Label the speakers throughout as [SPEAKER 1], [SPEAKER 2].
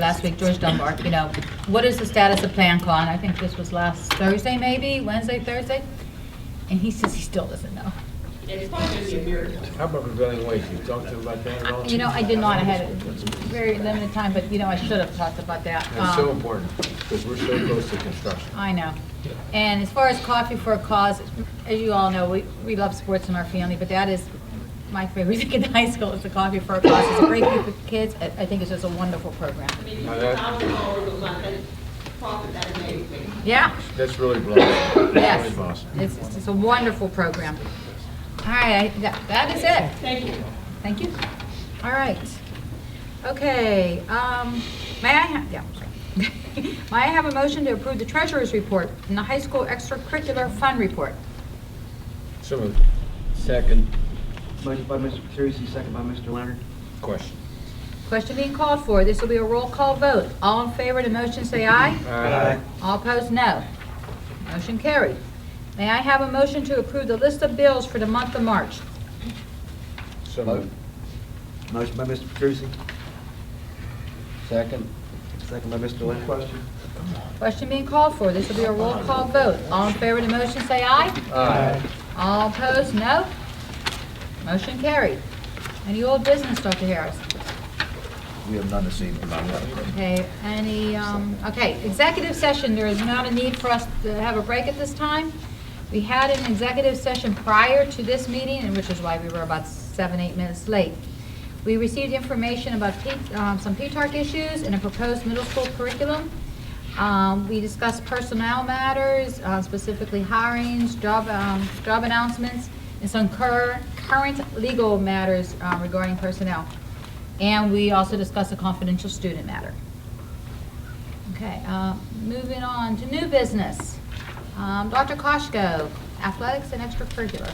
[SPEAKER 1] last week, George Dunbar, you know, what is the status of PlanCon? I think this was last Thursday, maybe, Wednesday, Thursday? And he says he still doesn't know.
[SPEAKER 2] It's probably gonna be a miracle.
[SPEAKER 3] How about prevailing wage? You talked to him about that at all?
[SPEAKER 1] You know, I did not, I had a very limited time, but, you know, I should have talked about that.
[SPEAKER 3] That's so
[SPEAKER 1] Um,
[SPEAKER 3] important, because we're so close to construction.
[SPEAKER 1] I know. And as far as Coffee for a Cause, as you all know, we, we love sports in our family, but that is my favorite thing in high school is the Coffee for a Cause. It's a great group of kids. I, I think it's just a wonderful program.
[SPEAKER 2] I mean, you
[SPEAKER 3] Now
[SPEAKER 2] put
[SPEAKER 3] that-
[SPEAKER 2] a thousand dollars a month, that's profit that amazing.
[SPEAKER 1] Yeah,
[SPEAKER 3] That's really blessed. Really
[SPEAKER 1] yes.
[SPEAKER 3] blessed.
[SPEAKER 1] It's, it's just a wonderful program. All right, I- that, that is it.
[SPEAKER 2] Thank you.
[SPEAKER 1] Thank you. All right. Okay, um, may I have, yeah, I'm sorry. May I have a motion to approve the treasurer's report and the high school extracurricular fund report?
[SPEAKER 3] So moved. Second
[SPEAKER 4] Motion by Mr. Petrusi, second by Mr. Leonard.
[SPEAKER 3] question.
[SPEAKER 1] Question being called for. This will be a roll call vote. All in favor of the motion, say aye. All opposed, no. Motion carried. May I have a motion to approve the list of bills for the month of March?
[SPEAKER 3] So moved.
[SPEAKER 4] Motion by Mr. Petrusi,
[SPEAKER 3] Second.
[SPEAKER 4] second by Mr. Leonard. Question?
[SPEAKER 1] Question being called for. This will be a roll call vote. All in favor of the motion, say aye.
[SPEAKER 3] Aye.
[SPEAKER 1] All opposed, no. Motion carried. Any old business, Dr. Harris?
[SPEAKER 5] We have none this evening.
[SPEAKER 1] Okay, any, um, okay, executive session, there is not a need for us to have a break at this time. We had an executive session prior to this meeting, and which is why we were about seven, eight minutes late. We received information about P- um, some P-TARC issues and a proposed middle school curriculum. Um, We discussed personnel matters, uh, specifically hirings, job, um, job announcements, and some cur- current legal matters uh, regarding personnel. And we also discussed a confidential student matter. Okay, uh, moving on to new business. Um, Dr. Koshko, athletics and extracurricular.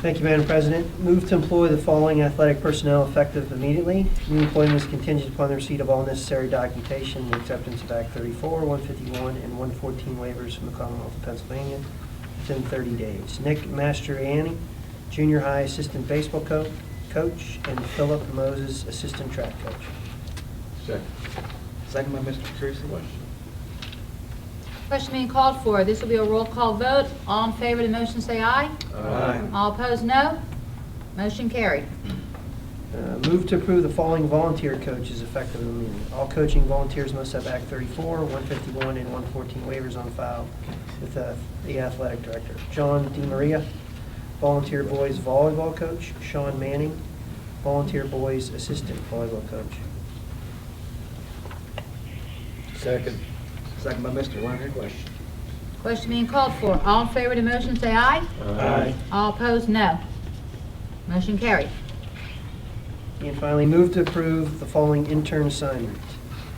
[SPEAKER 6] Thank you, Madam President. Move to employ the following athletic personnel effective immediately. New employment is contingent upon the receipt of all necessary documentation and acceptance of Act 34, 151, and 114 waivers from the Commonwealth of Pennsylvania within 30 days. Nick Mastriani, junior high assistant baseball co- coach, and Philip Moses, assistant track coach.
[SPEAKER 3] Second
[SPEAKER 4] Second by Mr. Petrusi.
[SPEAKER 3] question.
[SPEAKER 1] Question being called for. This will be a roll call vote. All in favor of the motion, say aye. All opposed, no. Motion carried.
[SPEAKER 6] Uh, Move to approve the following volunteer coaches effective immediately. All coaching volunteers must have Act 34, 151, and 114 waivers on file with uh, the athletic director. John DiMaria, volunteer boys volleyball coach. Sean Manning, volunteer boys assistant volleyball coach.
[SPEAKER 3] Second
[SPEAKER 4] Second by Mr. Leonard.
[SPEAKER 3] question.
[SPEAKER 1] Question being called for. All in favor of the motion, say aye.
[SPEAKER 3] Aye.
[SPEAKER 1] All opposed, no. Motion carried.
[SPEAKER 6] And finally, move to approve the following intern assignment.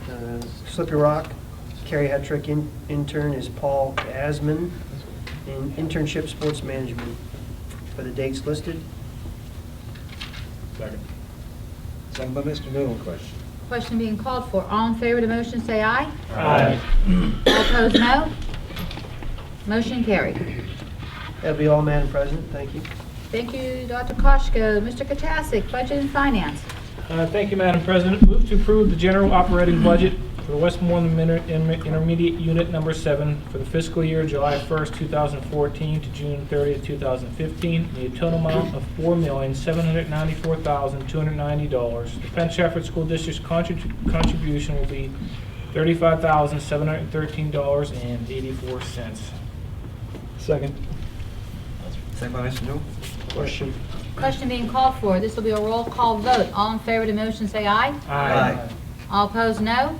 [SPEAKER 6] Uh, Slippery Rock, Carrie Hetrick in- intern is Paul Asman in internship sports management for the dates listed.
[SPEAKER 3] Second
[SPEAKER 4] Second by Mr. Newell.
[SPEAKER 3] question.
[SPEAKER 1] Question being called for. All in favor of the motion, say aye.
[SPEAKER 3] Aye.
[SPEAKER 1] All opposed, no. Motion carried.
[SPEAKER 6] That'll be all, Madam President. Thank you.
[SPEAKER 1] Thank you, Dr. Koshko. Mr. Katsasik, Budget and Finance.
[SPEAKER 7] Uh, Thank you, Madam President. Move to approve the general operating budget for the Westmoreland Min- Inter- Intermediate Unit Number Seven for the fiscal year July 1st, 2014 to June 30th, 2015, in the total amount of $4,794,290. The Penn Trafford School District's contrib- contribution will be $35,713.84.
[SPEAKER 4] Second by Mr. Newell.
[SPEAKER 6] Question.
[SPEAKER 1] Question being called for. This will be a roll call vote. All in favor of the motion, say aye.
[SPEAKER 4] Aye.
[SPEAKER 1] All opposed, no.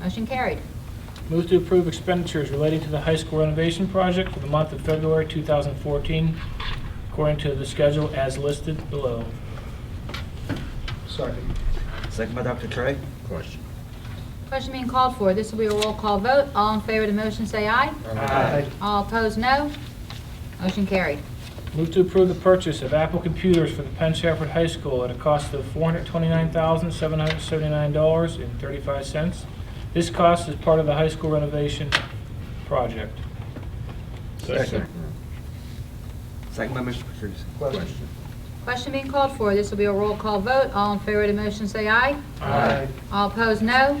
[SPEAKER 1] Motion carried.
[SPEAKER 7] Move to approve expenditures relating to the high school renovation project for the month of February 2014, according to the schedule as listed below.
[SPEAKER 6] Second.
[SPEAKER 4] Second by Dr. Trey.
[SPEAKER 3] Question.
[SPEAKER 1] Question being called for. This will be a roll call vote. All in favor of the motion, say aye.
[SPEAKER 6] Aye.
[SPEAKER 1] All opposed, no. Motion carried.
[SPEAKER 7] Move to approve the purchase of Apple computers for the Penn Trafford High School at a cost of $429,779.35. This cost is part of the high school renovation project.
[SPEAKER 3] Second
[SPEAKER 4] Second by Mr. Petrusi.
[SPEAKER 3] question.
[SPEAKER 1] Question being called for. This will be a roll call vote. All in favor of the motion, say aye.
[SPEAKER 7] Aye.
[SPEAKER 1] All opposed, no.